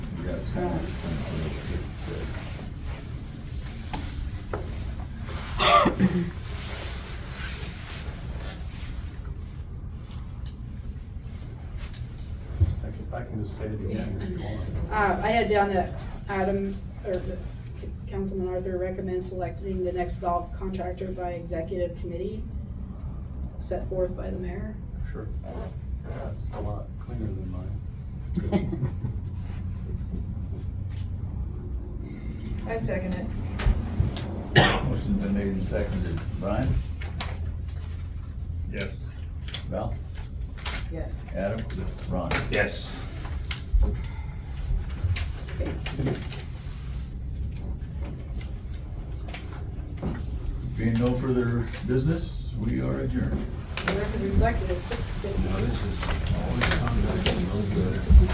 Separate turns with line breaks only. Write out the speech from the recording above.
that's fine.
I can, I can just say it again if you want.
Uh, I had down that item, or the Councilman Arthur recommends selecting the next golf contractor by executive committee set forth by the mayor.
Sure. That's a lot cleaner than mine.
I second it.
Motion's been made and seconded. Brian?
Yes.
Val?
Yes.
Adam? Ron?
Yes.
Being no further business, we are adjourned.
The record reflected a six fifty.
Now, this is always